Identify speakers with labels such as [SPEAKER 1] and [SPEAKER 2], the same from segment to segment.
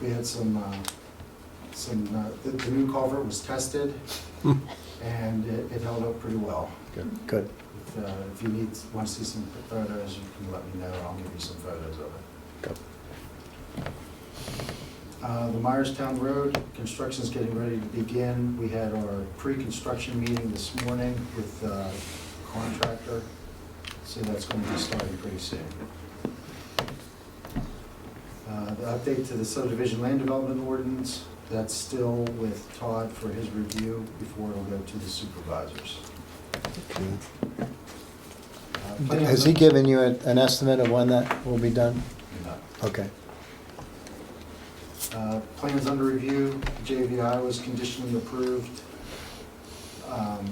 [SPEAKER 1] we had some, uh, some, uh, the, the new culvert was tested and it, it held up pretty well.
[SPEAKER 2] Hmm. Good, good.
[SPEAKER 1] If, uh, if you need, want to see some photos, you can let me know, I'll give you some photos of it.
[SPEAKER 2] Good.
[SPEAKER 1] Uh, the Myerstown Road, construction's getting ready to begin. We had our pre-construction meeting this morning with, uh, contractor, so that's gonna be starting pretty soon. Uh, the update to the subdivision land development ordinance, that's still with Todd for his review before it'll go to the supervisors. Uh, plan-
[SPEAKER 2] Has he given you a- an estimate of when that will be done?
[SPEAKER 1] No.
[SPEAKER 2] Okay,
[SPEAKER 1] Uh, Plans under review, JVI was conditionally approved. Um,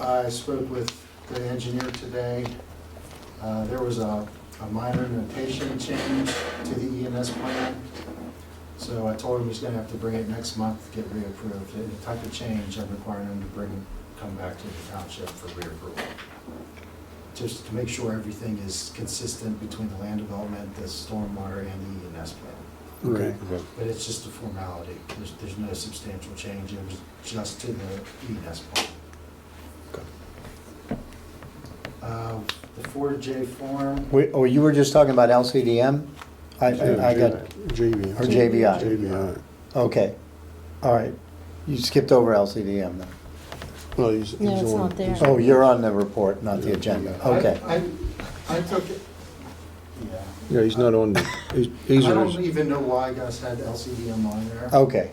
[SPEAKER 1] I spoke with the engineer today. Uh, There was a a minor notation change to the ENS plan. So I told him he's gonna have to bring it next month to get reapproved. Any type of change, I'm requiring him to bring, come back to the township for reapproval. Just to make sure everything is consistent between the land development, the stormwater, and the ENS plan.
[SPEAKER 2] okay.
[SPEAKER 1] But it's just a formality. There's, there's no substantial change. It was just to the E ENS plan.
[SPEAKER 2] Good.
[SPEAKER 1] Uh, The 4J form,
[SPEAKER 2] We- Oh, you were just talking about LCDM? I, I I got,
[SPEAKER 3] JV.
[SPEAKER 2] or JVI,
[SPEAKER 3] JVI.
[SPEAKER 2] okay. All right, you skipped over LCDM then.
[SPEAKER 3] Well, he's, he's on.
[SPEAKER 4] No, it's not there.
[SPEAKER 2] Oh, you're on the report, not the agenda,
[SPEAKER 1] I-
[SPEAKER 2] okay.
[SPEAKER 1] I, I took it, yeah.
[SPEAKER 3] Yeah, he's not on, the- he's,
[SPEAKER 1] I
[SPEAKER 3] he's on,
[SPEAKER 1] don't
[SPEAKER 3] his-
[SPEAKER 1] even know why I guys had LCDM on there.
[SPEAKER 2] Okay,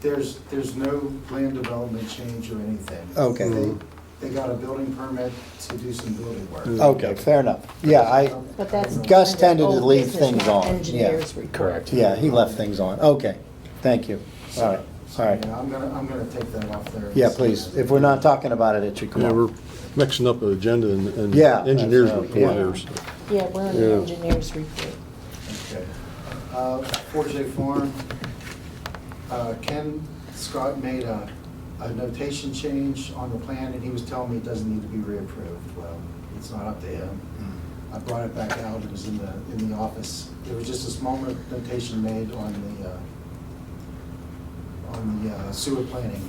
[SPEAKER 1] There's, there's no land development change or anything. Mm-hmm.
[SPEAKER 2] Okay.
[SPEAKER 1] They, they got a building permit to do some building work.
[SPEAKER 2] okay, fair enough. Yeah, I,
[SPEAKER 4] But that's.
[SPEAKER 2] Gus
[SPEAKER 4] kind of
[SPEAKER 2] tended to
[SPEAKER 4] old
[SPEAKER 2] leave
[SPEAKER 4] business,
[SPEAKER 2] things
[SPEAKER 4] not
[SPEAKER 2] on, yeah.
[SPEAKER 4] Engineers report.
[SPEAKER 5] Correct.
[SPEAKER 2] yeah, he left things on, okay. Thank you, all right, all right.
[SPEAKER 1] Yeah, I'm gonna, I'm gonna take that off there.
[SPEAKER 2] Yeah, please, if we're not talking about it, it should come
[SPEAKER 3] yeah, we're
[SPEAKER 2] up.
[SPEAKER 3] mixing up the agenda and, and
[SPEAKER 2] Yeah, that's
[SPEAKER 3] engineers
[SPEAKER 2] right,
[SPEAKER 3] report
[SPEAKER 2] yeah.
[SPEAKER 3] here, so.
[SPEAKER 4] Yeah, we're on the
[SPEAKER 3] Yeah.
[SPEAKER 4] engineers report.
[SPEAKER 1] Okay. Uh, 4J Farm, uh, Ken Scott made a, a notation change on the plan, and he was telling me it doesn't need to be reapproved. Well, it's not up to him. I brought it back out, it was in the, in the office. There was just a small notation made on the, uh, on the uh, sewer planning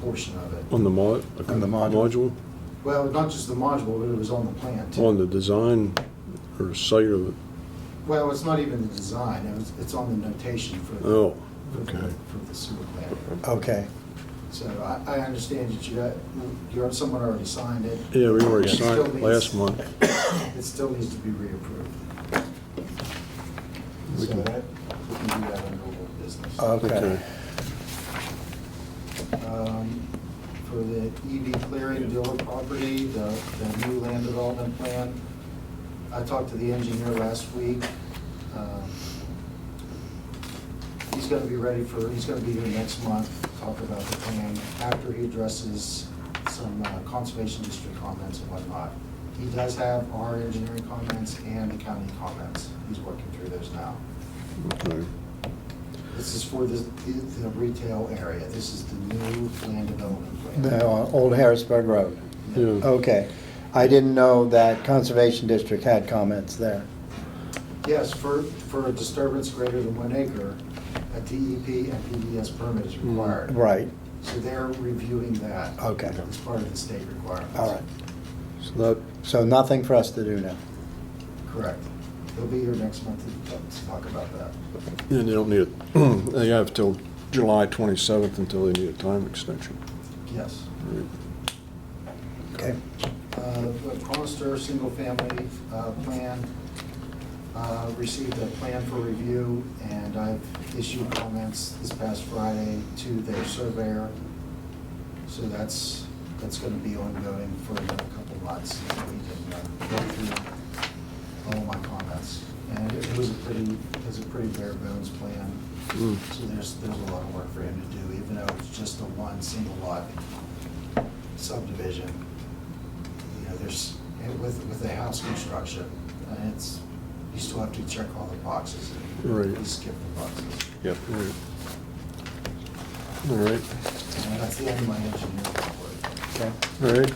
[SPEAKER 1] portion of it.
[SPEAKER 3] On the mod.
[SPEAKER 2] On the module.
[SPEAKER 1] Well, not just the module, but it was on the plan
[SPEAKER 3] module,
[SPEAKER 1] too.
[SPEAKER 3] on the design or site of it.
[SPEAKER 1] Well, it's not even the design, it was, it's on the notation for the.
[SPEAKER 3] Oh,
[SPEAKER 1] for the-
[SPEAKER 3] okay.
[SPEAKER 1] For the sewer plant.
[SPEAKER 2] Okay,
[SPEAKER 1] So I, I understand that you, got- you're, someone already signed it.
[SPEAKER 3] Yeah, we already
[SPEAKER 1] It still
[SPEAKER 3] signed it
[SPEAKER 1] needs-
[SPEAKER 3] last month.
[SPEAKER 1] It still needs to be reapproved. So
[SPEAKER 3] We can- Uh,
[SPEAKER 1] that, we can do that under old business.
[SPEAKER 2] okay.
[SPEAKER 1] Um, For the EV clearing dealer property, the, the new land development plan, I talked to the engineer last week. Um, He's gonna be ready for, he's gonna be here next month, to talk about the plan, after he addresses some uh, conservation district comments and whatnot. He does have our engineering comments and the county comments, he's working through those now.
[SPEAKER 3] Okay.
[SPEAKER 1] This is for the, the retail area, this is the new land development plan.
[SPEAKER 2] The, uh, Old Harrisburg Road,
[SPEAKER 3] Yeah,
[SPEAKER 2] okay. I didn't know that Conservation District had comments there.
[SPEAKER 1] Yes, for, for a disturbance greater than one acre, a DEP and PDS permit is required.
[SPEAKER 2] Mm, Right,
[SPEAKER 1] So they're reviewing that.
[SPEAKER 2] Okay.
[SPEAKER 1] As part of the state requirements.
[SPEAKER 2] all right.
[SPEAKER 3] so that,
[SPEAKER 2] So nothing for us to do now.
[SPEAKER 1] Correct. They'll be here next month to to talk about that.
[SPEAKER 3] yeah, they don't need it, they have till July twenty-seventh until they need a time extension.
[SPEAKER 1] Yes.
[SPEAKER 3] Right.
[SPEAKER 2] Okay.
[SPEAKER 1] Uh, The Conister Single Family uh, Plan uh, received a plan for review, and I've issued comments this past Friday to their surveyor. So that's, that's going to be ongoing for another couple months. We can uh, go through all my comments. And it was a pretty, it was a pretty bare bones plan,
[SPEAKER 2] Hmm.
[SPEAKER 3] Mm.
[SPEAKER 1] so there's, there's a lot of work for him to do, even though it's just a one single lot subdivision you know, there's, and with, with the house construction, uh, it's, you still have to check all the boxes. and
[SPEAKER 3] Right.
[SPEAKER 1] You skip the boxes.
[SPEAKER 3] Yep. Right. All
[SPEAKER 1] And
[SPEAKER 3] right,
[SPEAKER 1] that's the end of my engineering report.
[SPEAKER 2] Okay.
[SPEAKER 3] all right.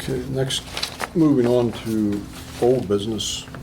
[SPEAKER 3] Okay, next, moving on to old business.